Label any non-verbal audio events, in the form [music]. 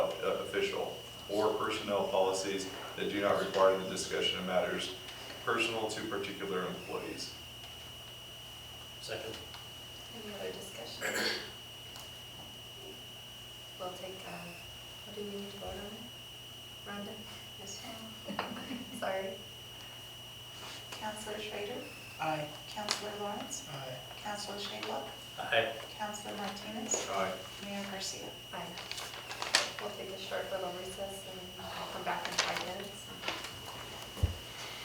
or personnel policies that do not require the discussion of matters personal to particular employees. Second. Any other discussion? We'll take, uh, what do we need to vote on? it? Rhonda? Yes. [laughs] Sorry. Counselor Schrader, Aye. Counselor Lawrence, Aye. Counselor Shadewell, Aye. Counselor Martinez, Aye. Mayor Garcia. Aye. We'll take a short little recess and come back in five minutes.